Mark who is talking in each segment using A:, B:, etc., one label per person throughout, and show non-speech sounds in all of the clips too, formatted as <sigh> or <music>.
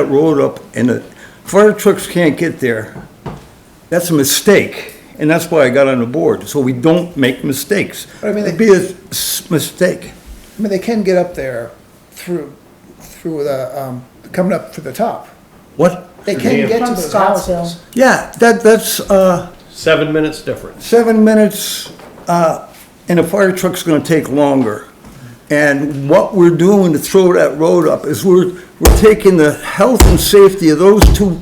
A: that road up and the fire trucks can't get there, that's a mistake. And that's why I got on the board, so we don't make mistakes.
B: But I mean,
A: It'd
B: they-
A: be a s- mistake.
B: I mean, they can get up there through, through the, um, coming up to the top.
A: What?
B: They can get to
C: From
B: those
C: Scottsdale.
B: houses.
A: Yeah, that, that's, uh,
D: Seven minutes difference.
A: seven minutes, uh, and a fire truck's gonna take longer. And what we're doing to throw that road up is we're, we're taking the health and safety of those two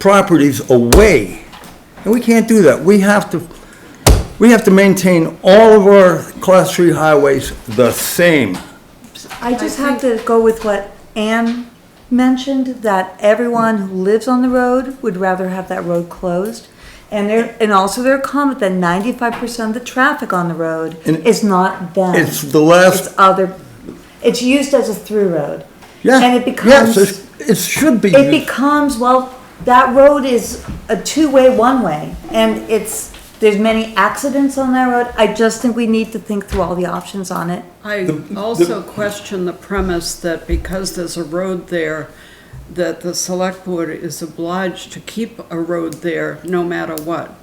A: properties away. And we can't do that. We have to, we have to maintain all of our class three highways the same.
C: I just have to go with what Ann mentioned, that everyone who lives on the road would rather have that road closed. And their, and also their comment that ninety-five percent of the traffic on the road
A: And
C: is not them.
A: it's the last-
C: It's other, it's used as a through road.
A: Yeah.
C: And it
A: Yes,
C: becomes,
A: it's- it should be.
C: it becomes, well, that road is a two-way, one-way. And it's, there's many accidents on that road. I just think we need to think through all the options on it.
E: I also question the premise that because there's a road there, that the select board is obliged to keep a road there no matter what.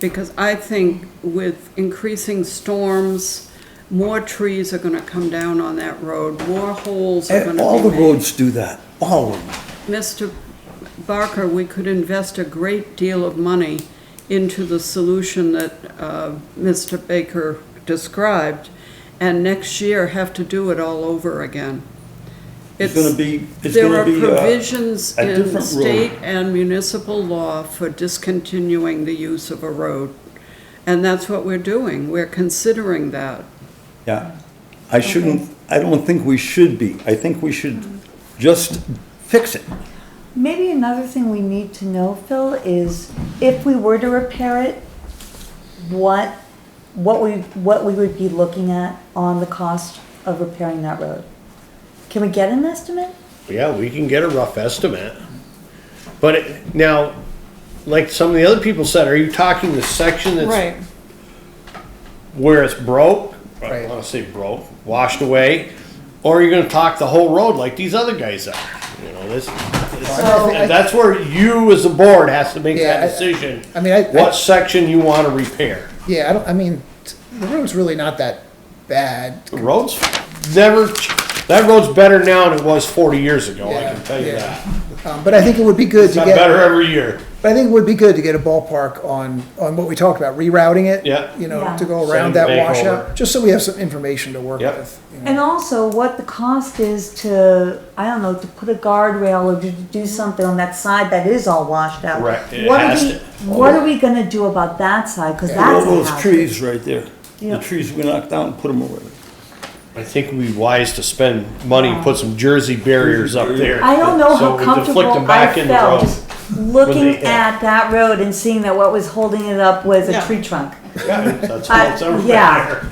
E: Because I think with increasing storms, more trees are gonna come down on that road, more holes are
A: And
E: gonna
A: Eh, All
E: be
A: the
E: made.
A: roads do that, all of them.
E: Mr. Barker, we could invest a great deal of money into the solution that uh, Mr. Baker described, and next year have to do it all over again.
A: It's gonna be- it's
E: There
A: gonna
E: are
A: be, uh,
E: provisions
A: a
E: in
A: different road.
E: state and municipal law for discontinuing the use of a road, and that's what we're doing. We're considering that.
A: Yeah, I shouldn't, I don't think we should be. I think we should just fix it.
C: Maybe another thing we need to know, Phil, is if we were to repair it, what, what we, what we would be looking at on the cost of repairing that road? Can we get an estimate?
D: Yeah, we can get a rough estimate. But it- now, like some of the other people said, are you talking the section that's where it's broke? I
B: Right.
D: don't wanna say broke, washed away, or are you gonna talk the whole road like these other guys are? You know, this, this-
B: So-
D: that's where you as a board has to make
B: Yeah, I-
D: that decision.
B: I mean, I- I-
D: What section you wanna repair.
B: Yeah, I don't, I mean, t- the road's really not that bad.
D: The road's never, ch- that road's better now than it was forty years ago, I can
B: Yeah,
D: tell you
B: yeah.
D: that.
B: Um, but I think it would be good to
D: It's got
B: get.
D: better every year.
B: But I think it would be good to get a ballpark on, on what we talked about, rerouting it.
D: Yeah.
B: You know,
C: Yeah.
B: to go
D: Send
B: around
D: it
B: that
D: back
B: washout,
D: over.
B: just so we have some information to work
D: Yep.
B: with. you know.
C: And also what the cost is to, I don't know, to put a guardrail or to do something on that side that is all washed out.
D: Correct. It
C: What are
D: has
C: we,
D: to-
C: what are we gonna do about that side? Cause
A: All
C: that's a
A: those
C: hazard.
A: trees right there, the
C: Yeah.
A: trees we knocked down, put them away.
D: I think we'd be wise to spend money and put some jersey barriers up there.
C: I don't know
D: so
C: how
D: we deflect them
C: comfortable I
D: back in the
C: felt
D: road.
C: just looking
D: they- yeah.
C: at that road and seeing that what was holding it up was a tree trunk.
D: Yeah, That's
C: I-
D: what's ever
C: yeah.
D: there.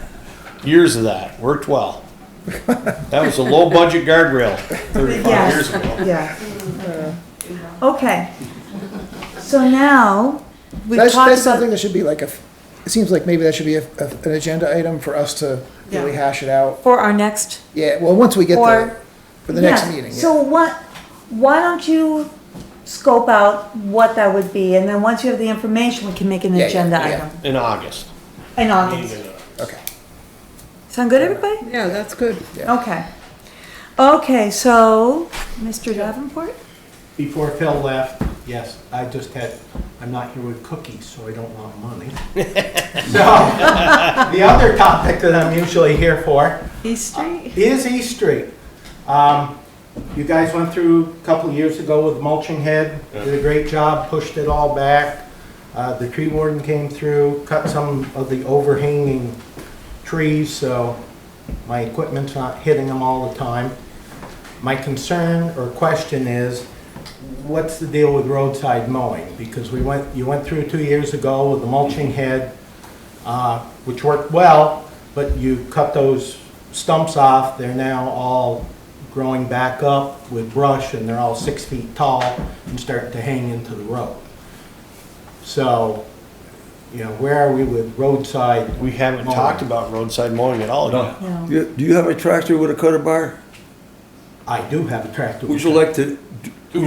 D: Years of that, worked well. That was a low-budget guardrail thirty-five years
C: Yes,
D: ago.
C: yeah. Okay. So now, we've
B: That's,
C: talked
B: that's something
C: about,
B: that should be like a, it seems like maybe that should be a, a- an agenda item for us to really
E: Yeah.
B: hash it out.
C: for our next,
B: Yeah, well, once we get
C: or.
B: there, for the next
C: yeah.
B: meeting, yeah.
C: So what, why don't you scope out what that would be, and then once you have the information, we can make an
B: Yeah, yeah,
C: agenda
B: yeah.
C: item
D: In August.
C: in August.
B: Okay.
C: Sound good, everybody?
E: Yeah, that's good.
B: Yeah.
C: Okay. Okay, so, Mr. Davenport?
F: Before Phil left, yes, I just had, I'm not here with cookies, so I don't want money. So, <laughs> the other topic that I'm usually here for
E: East Street?
F: is East Street. Um, You guys went through a couple of years ago with mulching head, did a great job, pushed it all back. Uh, The tree warden came through, cut some of the overhanging trees, so my equipment's not hitting them all the time. My concern or question is, what's the deal with roadside mowing? Because we went, you went through two years ago with the mulching head, uh, which worked well, but you cut those stumps off, they're now all growing back up with brush, and they're all six feet tall and starting to hang into the road. So, you know, where are we with roadside?
D: We haven't
F: mowing?
D: talked about roadside mowing at all yet.
C: No.
A: You- Do you have a tractor with a cutter bar?
F: I do have a tractor.
A: Would you like to d-